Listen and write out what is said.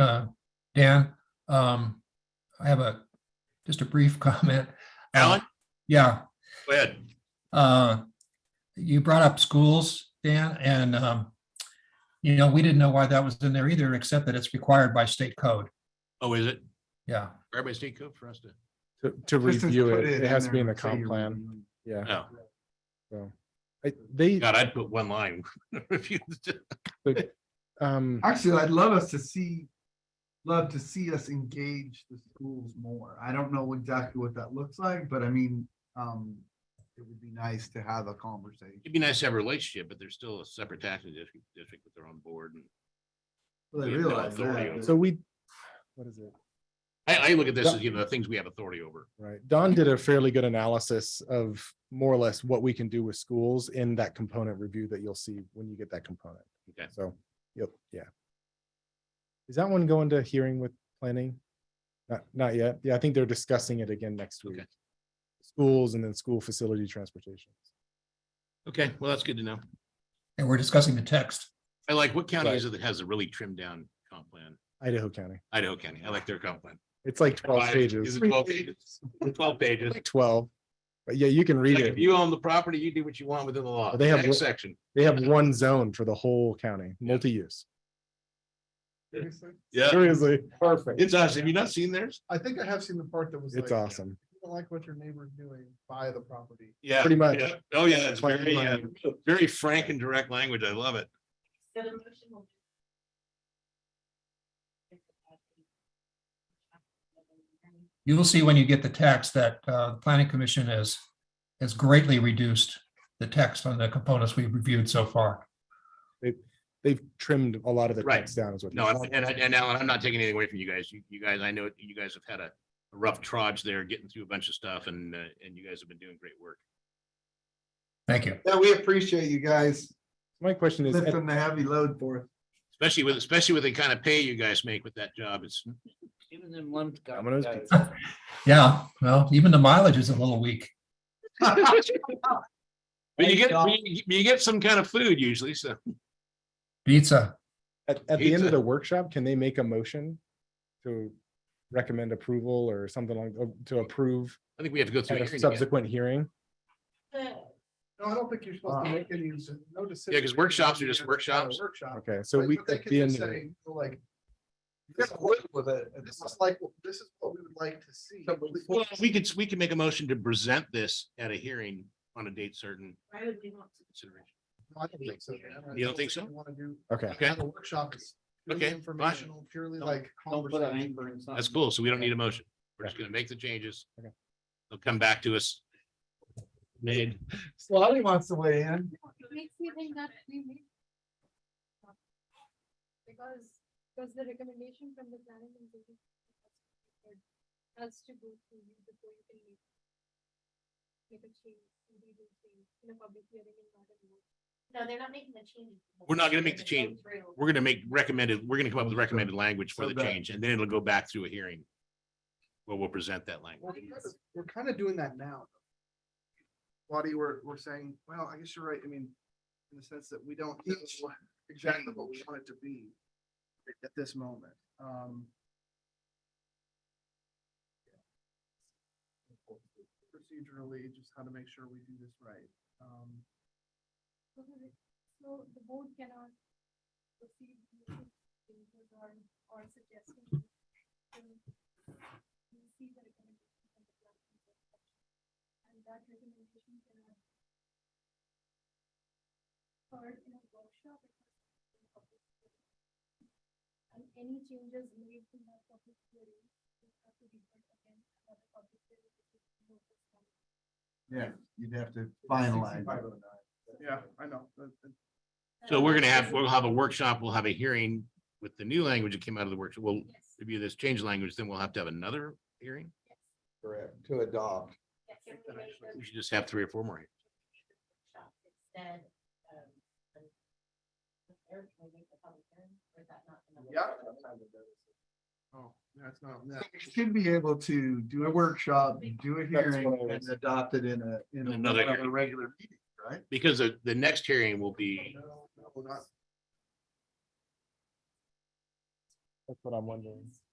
uh, Dan, um, I have a, just a brief comment. Uh, Alan, Yeah, go ahead. uh, you brought up schools, Dan, and, um, you know, we didn't know why that was in there either, except that it's required by state code. Oh, is it? Yeah. Everybody's state code for us to, to, to Just to review put it. It in has to be there in the and say comp you're plan. reviewing. Yeah. no. So I, they, God, I'd put one line. If you- the- um, Actually, I'd love us to see, love to see us engage the schools more. I don't know exactly what that looks like, but I mean, um, it would be nice to have a conversation. It'd be nice to have a relationship, but they're still a separate taxing district, district with their own board. and Well, I We have no realize authority that, over- but- so we, what is it? I, I look at this as, you know, the things we have authority over. Right. Don did a fairly good analysis of more or less what we can do with schools in that component review that you'll see when you get that component. Okay. So, yep, yeah. Is that one going to hearing with planning? Not, not yet. Yeah, I think they're discussing it again next week. Okay. Schools and then school facility transportation. Okay, well, that's good to know. And we're discussing the text. I like, what county is Right. it that has a really trimmed down comp plan? Idaho County. Idaho County. I like their comp plan. It's like twelve Five- Is pages, it twelve pages? Twelve pages. like twelve. But yeah, you can read Like, it. If you own the property, you do what you want within the law. Well, they have Next one- Section. They have one zone for the whole county, multi-use. Seriously? Yeah, Seriously, Perfect. it's us. Have you not seen theirs? I think I have seen the part that was it's awesome. don't like what your neighbor's doing, buy the property. Yeah. Pretty much. yeah. Oh, yeah, it's Plan very, uh, money. very frank and direct language. I love it. So the motion will. You will see when you get the text that, uh, the planning commission has, has greatly reduced the text on the components we've reviewed so far. They've trimmed a lot of the Right. text down is what. No, and, and I- and Alan, I'm not taking anything away from you guys. You, you guys, I know you guys have had a a rough trudge there, getting through a bunch of stuff and, uh, and you guys have been doing great work. Thank you. Yeah, we appreciate you guys My question is, at- lifting the heavy load for us. Especially with, especially with the kind of pay you guys make with that job. It's, Giving them one. Domino's guy- Yeah, well, even the mileage is a little weak. but you get, you you get some kind of food usually, so. Pizza. at, at the end Pizza. of the workshop, can they make a motion to recommend approval or something like, uh, to approve I think we have to go through. at a a hearing again. subsequent hearing? No, I don't think you're supposed to Wow. make any, no decision. Yeah, 'cause workshops are just workshops. Workshop. Okay, so But- we, but they at could the end just of it, say, Like. This is what- with it, and this is like, this is what we would like to see. Well, we could, we could make a motion to present this at a hearing on a date certain Why would we want to? consideration. I don't think so, man. I You don't think so? we wanna do- okay, Okay. have a workshop is purely Okay, fine. informational, purely Don't- like. Don't put a conversation. hamper in something. That's cool. So we don't need a motion. We're just gonna make the changes. Okay. They'll come back to us. Made. Scotty wants to weigh in. It makes me think that we may- Because, because the recommendation from the planning and building commission has to go through you before you can make. Make a change, legal change in a public hearing and not in. No, they're not making the change. We're not gonna make the change. We're gonna make recommended, we're gonna come up with recommended language for So the that- change and then it'll go back through a hearing. Where we'll present that language. We're kinda- We're kind of doing that now. Lottie, we're, we're saying, well, I guess you're right. I mean, in the sense that we don't know exactly what we want it to be at this moment. Um, Procedurally, just how to make sure we do this right. Um, So the board cannot proceed with changes or, or suggesting. We see the recommendation from the planning commission. And that recommendation cannot. Or in a workshop. it must be in a public hearing. And any changes made in that public hearing. will have to be heard again at the public hearing, which is noticed on Yeah, you'd have to finalize. Yeah, I know. that- that- So we're gonna have, we'll have a workshop, we'll have a hearing with the new language that came out of the workshop. We'll Yes, review this change language, then we'll have to have another hearing. Correct, to adopt. yes, I think that yes. actually- We should just have three or four more. hearings. shop instead, um, and prepare to make the public hearing, or is that not? gonna work? Oh, that's not. You should be able to do a workshop, do That's what a I hearing and was- adopt it in a, in Another a hearing. regular meeting, right? Because the, the next hearing will be, No, no, not- That's what I'm wondering.